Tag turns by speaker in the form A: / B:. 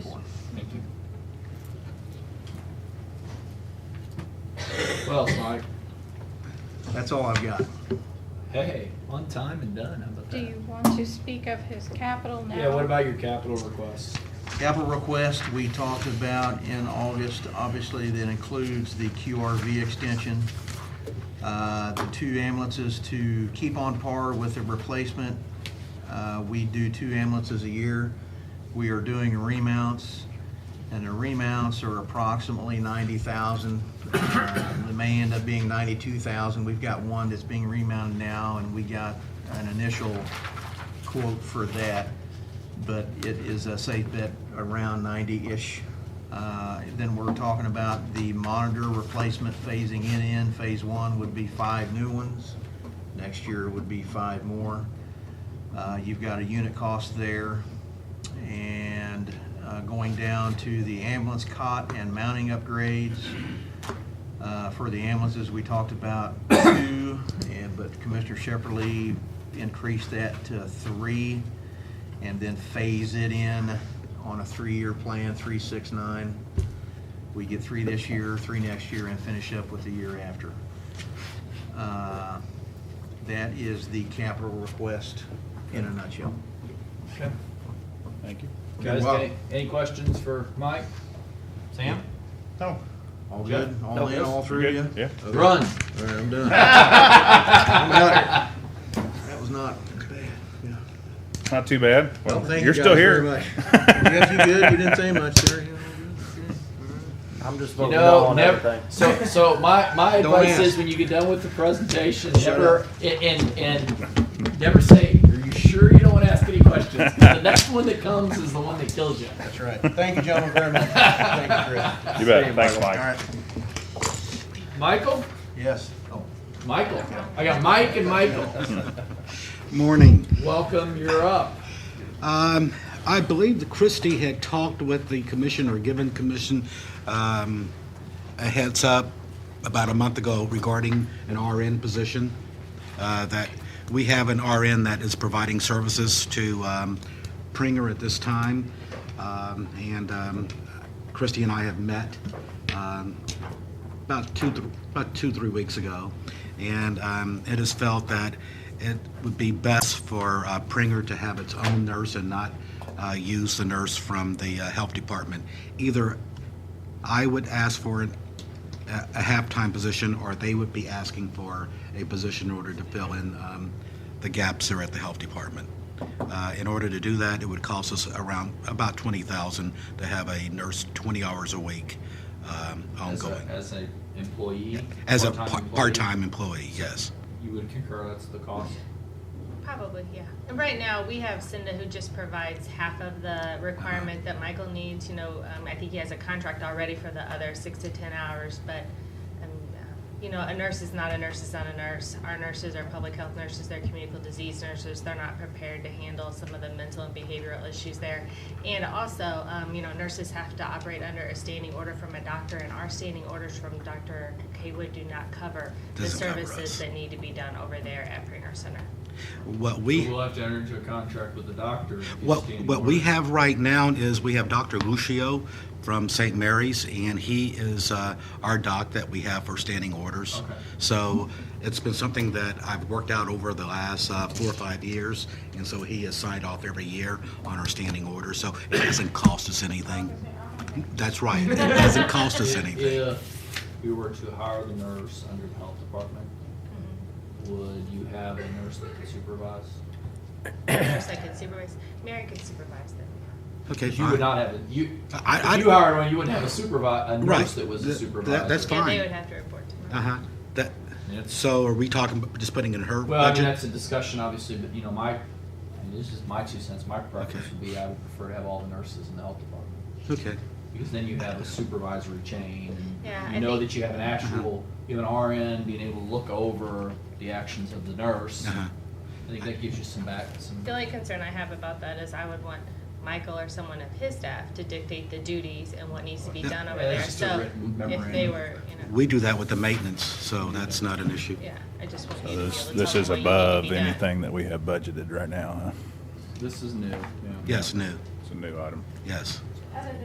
A: Well, Mike,
B: That's all I've got.
A: hey, on time and done, how about
C: Do
A: that?
C: you want to speak of his capital now?
A: Yeah, what about your capital requests?
B: Capital request, we talked about in August, obviously that includes the QRV extension. Uh, The two ambulances to keep on par with the replacement. Uh, We do two ambulances a year. We are doing remounts, and the remounts are approximately ninety thousand. Uh, They may end up being ninety-two thousand. We've got one that's being remounted now, and we got an initial quote for that, but it is a safe bet around 90-ish. Uh, Then we're talking about the monitor replacement phasing in in. Phase one would be five new ones. Next year would be five more. Uh, You've got a unit cost there. And uh, going down to the ambulance cot and mounting upgrades, uh, For the ambulances, we talked about two, and, but Commissioner Shepherdly increased that to three, and then phase it in on a three-year plan, three, six, nine. We get three this year, three next year, and finish up with the year after. Uh, That is the capital request in a nutshell.
A: Okay.
D: Thank you.
A: Guys,
B: Well-
A: any, any questions for Mike? Sam?
D: No.
B: All
A: Jeff?
B: good? All in, all through you?
D: Yeah.
B: Okay.
A: Run.
B: All right, I'm done. I'm outta here. That was not bad, yeah.
D: Not too bad.
B: Well,
D: Well,
B: thank
D: you're
B: you
D: still
B: guys very
D: here.
B: much. You guys did good. You didn't say much there.
E: I'm just
A: You
E: voting no
A: know,
E: on
A: never,
E: everything.
A: so, so my, my
B: Don't
A: advice
B: ask.
A: is when you get done with the presentation,
B: Shut
A: never, and, and- and never say, are you sure you don't want to ask any questions? 'Cause The next one that comes is the one that kills you.
B: That's right. Thank you, gentlemen, very much. Thank you, Chris.
D: You bet. Thanks,
B: All
D: Mike.
B: right.
A: Michael?
B: Yes. Oh.
A: Michael. I got Mike and Michael.
F: Morning.
A: Welcome, you're up.
F: Um, I believe that Christie had talked with the commission or given commission um, a heads up about a month ago regarding an RN position. Uh, that we have an RN that is providing services to um, Pringer at this time, um, and um, Christie and I have met. Um, about two, th- about two, three weeks ago, and um, it is felt that it would be best for uh, Pringer to have its own nurse and not uh, use the nurse from the uh, health department. Either I would ask for an, a a half-time position, or they would be asking for a position in order to fill in um, the gaps there at the health department. Uh, In order to do that, it would cost us around, about twenty thousand to have a nurse twenty hours a week um,
A: As
F: ongoing.
A: a, as a employee?
F: As a
A: part-time
F: par-
A: employee,
F: part-time employee, yes.
A: You would concur that's the cost?
G: Probably, yeah. And right now, we have Cinda who just provides half of the requirement that Michael needs. You know, um, I think he has a contract already for the other six to ten hours, but, um, uh, you know, a nurse is not a nurse is not a nurse. Our nurses are public health nurses, they're communicable disease nurses. They're not prepared to handle some of the mental and behavioral issues there. And also, um, you know, nurses have to operate under a standing order from a doctor, and our standing orders from Dr. Haywood do not cover the
F: Doesn't cover
G: services
F: us.
G: that need to be done over there at Pringer Center.
F: What we,
A: We'll have to enter into a contract with the doctor. to get
F: what,
A: standing
F: what we
A: orders.
F: have right now is we have Dr. Lucio from St. Mary's, and he is uh, our doc that we have for standing orders.
A: Okay.
F: So it's been something that I've worked out over the last uh, four or five years, and so he is signed off every year on our standing orders, so it doesn't cost us anything. That's right, it doesn't cost us
A: If-
F: anything.
A: If we were to hire the nurse under the health department,
F: Mm-hmm.
A: would you have a nurse that could supervise?
G: First, I could supervise. Mary could supervise them.
F: Okay,
A: You would
F: fine.
A: not have, a you,
F: I-
A: if you
F: I-
A: hired one, you wouldn't have a supervi, a
F: Right.
A: nurse that was a
F: Th-
A: supervisor.
F: that- that's
G: Yeah,
F: Fine.
G: they would have to report to me.
F: Uh-huh, that,
A: Yeah.
F: so are we talking, about just putting in her budget?
A: Well, I mean, that's a discussion, obviously, but you know, my, I mean, this is my two cents, my preference would be I would prefer to have all the nurses in the health department.
F: Okay.
A: Because then you have a supervisory chain,
G: Yeah,
A: and
G: I
A: you know
G: think-
A: that you have an
F: Uh-huh.
A: actual, you have an RN being able to look over the actions of the nurse.
F: Uh-huh.
A: I think that gives you some back, some,
G: The only concern I have about that is I would want Michael or someone of his staff to dictate the duties and what needs to be
F: Yeah.
G: done over
A: Yeah,
G: there.
A: that's just a
G: So
A: written
G: if they
A: memorandum.
G: were, you know,
F: We do that with the maintenance, so that's not an issue.
G: yeah, I just want you to be able to
D: This,
G: tell
D: this
G: them
D: is
G: what you need to
D: above
G: be done.
D: anything that we have budgeted right now, huh?
A: this is new, yeah.
F: Yes, no,
D: It's a new item.
F: yes.